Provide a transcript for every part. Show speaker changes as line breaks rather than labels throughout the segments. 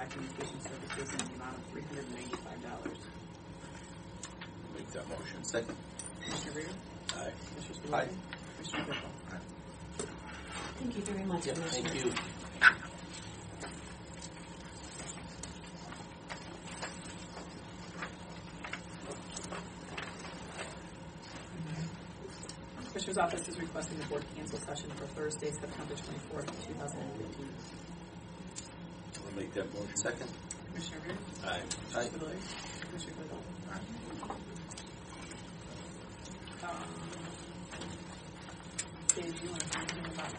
documentation services in the amount of three hundred and eighty-five dollars.
Make that motion. Second.
Commissioner Reer?
Aye.
Commissioner Spillier?
Aye.
Commissioner Clickwell?
Thank you very much,
Yep,
Commissioner.
thank you.
Commissioner's office is requesting the board cancel session for Thursday, September twenty-fourth, two thousand and fifteen.
I'll make that motion. Second.
Commissioner Reer?
Aye. Aye.
Commissioner Spillier? Commissioner Clickwell? Um, Dave, do you want to talk to me about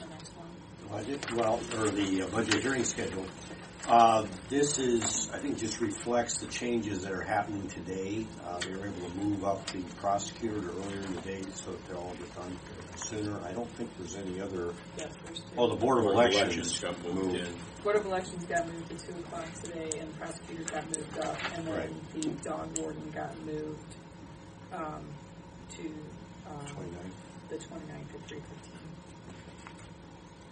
the next one?
The budget, well, or the uh, budget hearing schedule. Uh, This is, I think, just reflects the changes that are happening today. Uh, They were able to move up the prosecutor earlier in the day so that they'll all get done sooner. I don't think there's any other,
Yeah, Thursday.
oh, the Board of Elections.
Got moved in.
Board of Elections got moved to two o'clock today, and prosecutors got moved up, and then
Right.
the dog warden got moved, um, to, um,
Twenty-nine.
the twenty-ninth at three fifteen.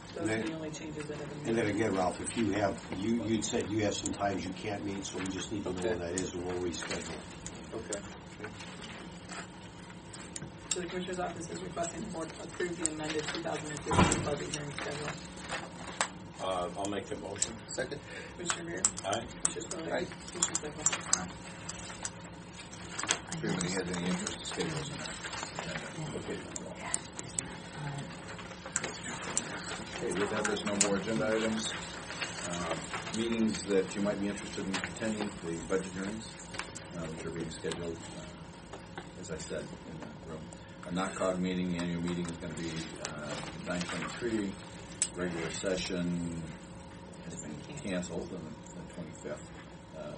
And
Those are
then-
the only changes that have been made.
And then again, Ralph, if you have, you, you'd said you have some times you can't meet, so we just need to know
Okay.
when that is and we'll reschedule.
Okay.
So the Commissioner's Office is requesting the board approve the amended two thousand and fifteen budget hearing schedule.
Uh, I'll make the motion. Second.
Commissioner Reer?
Aye.
Commissioner Spillier?
Aye.
Commissioner Clickwell?
If anybody has any interest, the schedule's in
Okay.
Okay, with that, there's no more agenda items. Uh, Meetings that you might be interested in attending, the budget hearings, uh, which are being scheduled, uh, as I said, in that room. A NACOG meeting, the annual meeting is going to be uh, nine twenty-three, regular session has been canceled on the twenty-fifth. uh,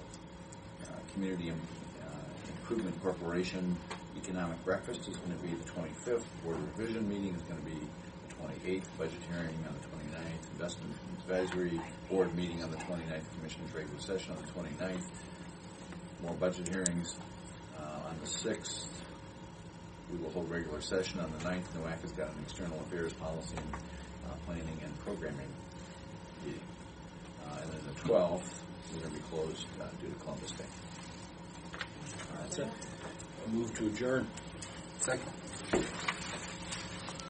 Community Im- uh, Improvement Corporation Economic Breakfast is going to be the twenty-fifth, Board Revision Meeting is going to be the 28th, budget hearing on the 29th, investment advisory board meeting on the 29th, commissioners regular session on the 29th, more budget hearings uh, on the 6th. We will hold regular session on the 9th. NOAC has got an external affairs policy and uh, planning and programming meeting. Uh, And then the 12th, we're going to be closed uh, due to Columbus Day. Uh, That's it.
Move to adjourn. Second.